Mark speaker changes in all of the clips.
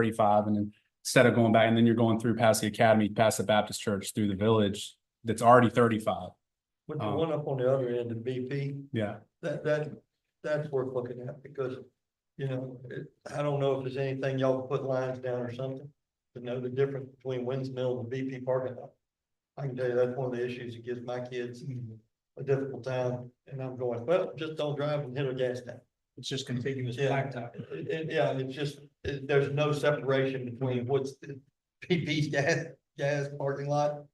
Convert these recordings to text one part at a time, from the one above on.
Speaker 1: thirty-five and then instead of going back and then you're going through past the academy, past the Baptist church, through the village, that's already thirty-five.
Speaker 2: With the
Speaker 1: Um,
Speaker 2: one up on the other end of BP,
Speaker 1: Yeah.
Speaker 2: that, that, that's worth looking at because, you know, it, I don't know if there's anything y'all put lines down or something. To know the difference between Windmill and BP parking lot. I can tell you that's one of the issues that gives my kids a difficult time and I'm going, well, just don't drive and hit a gas tank.
Speaker 3: It's just contiguous
Speaker 2: Yeah.
Speaker 3: blacktop.
Speaker 2: It- it- yeah, it's just, it- there's no separation between what's the PP's gas, gas parking lot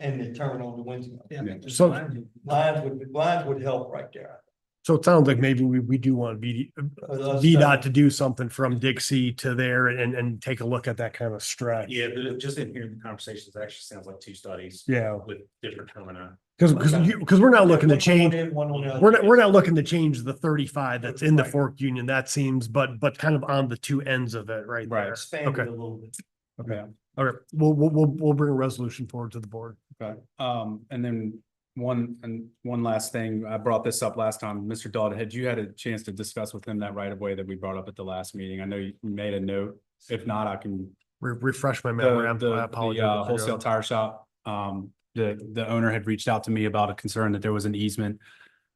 Speaker 2: and the terminal on the Windmill.
Speaker 3: Yeah.
Speaker 1: Yeah.
Speaker 3: just
Speaker 4: So-
Speaker 3: blind.
Speaker 2: Lines would, lines would help right there.
Speaker 4: So it sounds like maybe we, we do want VD,
Speaker 2: uh,
Speaker 4: VDOT to do something from Dixie to there and, and take a look at that kind of stretch.
Speaker 5: Yeah, but it- just in hearing the conversations, it actually sounds like two studies
Speaker 4: Yeah,
Speaker 5: with different termini.
Speaker 4: because, because you, because we're not looking to
Speaker 2: One on
Speaker 4: change,
Speaker 2: one end, one on the
Speaker 1: uh,
Speaker 2: other.
Speaker 4: we're not, we're not looking to change the thirty-five that's in the
Speaker 2: Right.
Speaker 4: Fork Union, that seems, but, but kind of on the two ends of it right
Speaker 1: Right.
Speaker 4: there.
Speaker 2: Expand it
Speaker 4: Okay.
Speaker 2: a little bit.
Speaker 1: Okay.
Speaker 4: All right, we'll, we'll, we'll, we'll bring a resolution forward to the board.
Speaker 1: Okay, um, and then one, and one last thing, I brought this up last time, Mr. Dalton, had you had a chance to discuss with him that right of way that we brought up at the last meeting? I know you made a note, if not, I can
Speaker 4: Re- Refresh my
Speaker 1: the-
Speaker 4: memory, I'm-
Speaker 1: the- the,
Speaker 4: I
Speaker 1: uh,
Speaker 4: apologize. if I go-
Speaker 1: Wholesale tire shop, um, the, the owner had reached out to me about a concern that there was an easement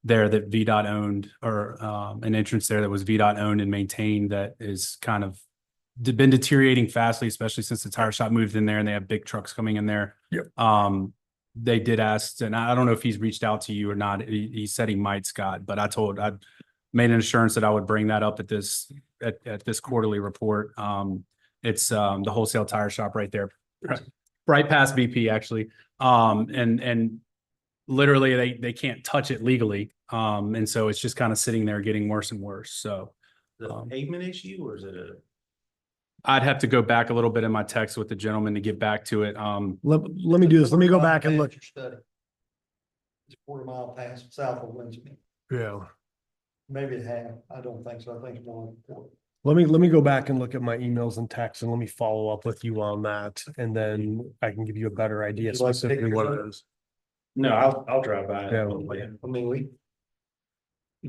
Speaker 1: there that VDOT owned or, um, an entrance there that was VDOT owned and maintained that is kind of de- been deteriorating fastly, especially since the tire shop moved in there and they have big trucks coming in there.
Speaker 4: Yep.
Speaker 1: Um, they did ask, and I I don't know if he's reached out to you or not. He, he said he might, Scott, but I told, I made an assurance that I would bring that up at this, at, at this quarterly report. Um, it's, um, the wholesale tire shop right there, right- right past BP actually. Um, and, and literally they, they can't touch it legally. Um, and so it's just kind of sitting there getting worse and worse. So
Speaker 5: The
Speaker 1: Um,
Speaker 5: pavement issue or is it a?
Speaker 1: I'd have to go back a little bit in my text with the gentleman to get back to it. Um,
Speaker 4: Let, let me do this, let me go back and look.
Speaker 2: Your study. It's a quarter mile past south of Winston,
Speaker 4: Yeah.
Speaker 2: maybe a half, I don't think so, I think it's more than four.
Speaker 4: Let me, let me go back and look at my emails and texts and let me follow up with you on that. And then I can give you a better idea
Speaker 2: you like to pick
Speaker 4: specifically what it is.
Speaker 5: No, I'll, I'll drive by. it
Speaker 4: Yeah.
Speaker 5: on the way in.
Speaker 2: I mean, we,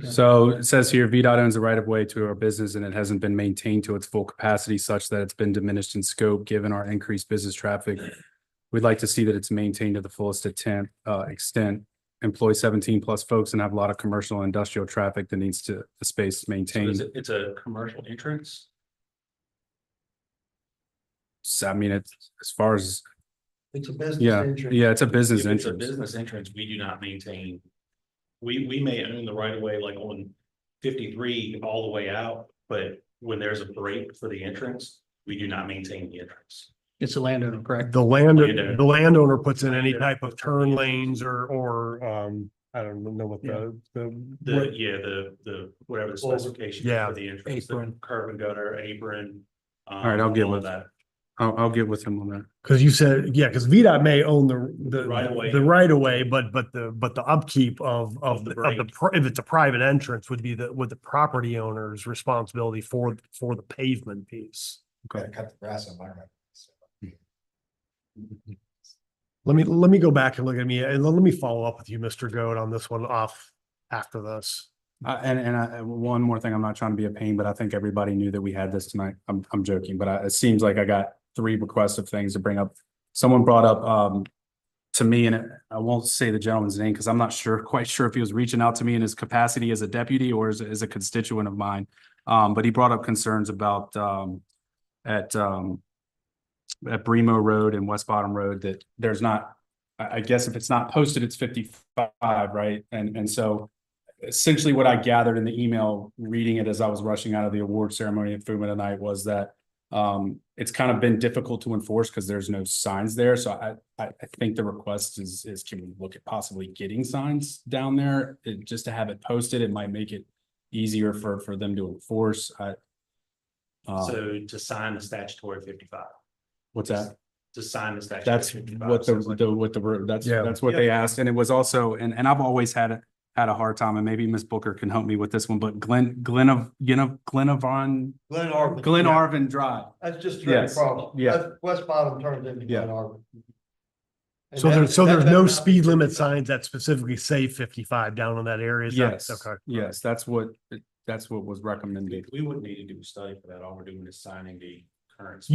Speaker 1: So it says here, VDOT owns the right of way to our business and it hasn't been maintained to its full capacity such that it's been diminished in scope, given our increased business traffic. We'd like to see that it's maintained to the fullest attempt, uh, extent, employ seventeen plus folks and have a lot of commercial and industrial traffic that needs to, the space
Speaker 5: So is
Speaker 1: maintained.
Speaker 5: it- It's a commercial entrance.
Speaker 1: So I mean, it's, as far as,
Speaker 2: it's a business.
Speaker 1: yeah,
Speaker 2: entrance.
Speaker 1: yeah, it's a business
Speaker 5: If it's a
Speaker 1: entrance.
Speaker 5: business entrance, we do not maintain. We, we may own the right of way like on fifty-three all the way out, but when there's a break for the entrance, we do not maintain the entrance.
Speaker 3: It's a landowner, correct?
Speaker 4: The land,
Speaker 5: Landowner.
Speaker 4: the landowner puts in any type of turn lanes or, or, um, I don't know what the, the.
Speaker 5: The,
Speaker 4: what-
Speaker 5: yeah, the, the, whatever the
Speaker 2: Well,
Speaker 5: specification is
Speaker 4: yeah.
Speaker 5: for the entrance, the
Speaker 3: Apron.
Speaker 5: curb and gutter, apron. um, All
Speaker 1: right, I'll get with-
Speaker 5: that.
Speaker 1: I'll, I'll get with him on that.
Speaker 4: Cause you said, yeah, cause VDOT may own the, the.
Speaker 5: Right of way.
Speaker 4: The right of way, but, but the, but the upkeep of, of,
Speaker 5: Of the
Speaker 4: the- of the,
Speaker 5: break.
Speaker 4: pri- if it's a private entrance would be the, with the property owner's responsibility for, for the pavement piece.
Speaker 1: Okay.
Speaker 6: cut the grass on my right.
Speaker 4: Let me, let me go back and look at me and let let me follow up with you, Mr. Goat, on this one off after this.
Speaker 1: Uh, and, and I, and one more thing, I'm not trying to be a pain, but I think everybody knew that we had this tonight. I'm, I'm joking, but I, it seems like I got three requests of things to bring up. Someone brought up, um, to me, and I won't say the gentleman's name because I'm not sure, quite sure if he was reaching out to me in his capacity as a deputy or as, a- as a constituent of mine. Um, but he brought up concerns about, um, at, um, at Bremo Road and West Bottom Road that there's not, I, I guess if it's not posted, it's fifty-five, right? And, and so essentially what I gathered in the email, reading it as I was rushing out of the award ceremony at Fuma tonight was that um, it's kind of been difficult to enforce because there's no signs there. So I, I, I think the request is, is can we look at possibly getting signs down there? It- just to have it posted, it might make it easier for, for them to enforce. I uh,
Speaker 5: So to sign the statutory fifty-five,
Speaker 1: what's that?
Speaker 5: to sign the statutory.
Speaker 1: That's
Speaker 5: 55,
Speaker 1: what the,
Speaker 5: sounds like-
Speaker 1: the, what the, word- that's,
Speaker 4: Yeah.
Speaker 1: that's what they asked. And it was also, and, and I've always had, a had a hard time and maybe Miss Booker can help me with this one, but Glenn, Glenn of, you know, Glenn of on,
Speaker 2: Glen Arvin.
Speaker 1: Glen Arvin Drive.
Speaker 2: That's just straight
Speaker 1: Yes,
Speaker 2: across.
Speaker 1: yeah.
Speaker 2: That's- West bottom turns into
Speaker 1: Yeah.
Speaker 2: Glen Arvin. And
Speaker 4: So
Speaker 2: that-
Speaker 4: there's, so
Speaker 2: that-
Speaker 4: there's no
Speaker 2: that's not-
Speaker 4: speed limit signs that specifically say fifty-five down on that area? is that-
Speaker 1: Yes,
Speaker 4: Okay.
Speaker 1: yes, that's what, that's what was recommended.
Speaker 5: We wouldn't need to do a study for that. All we're doing is signing the current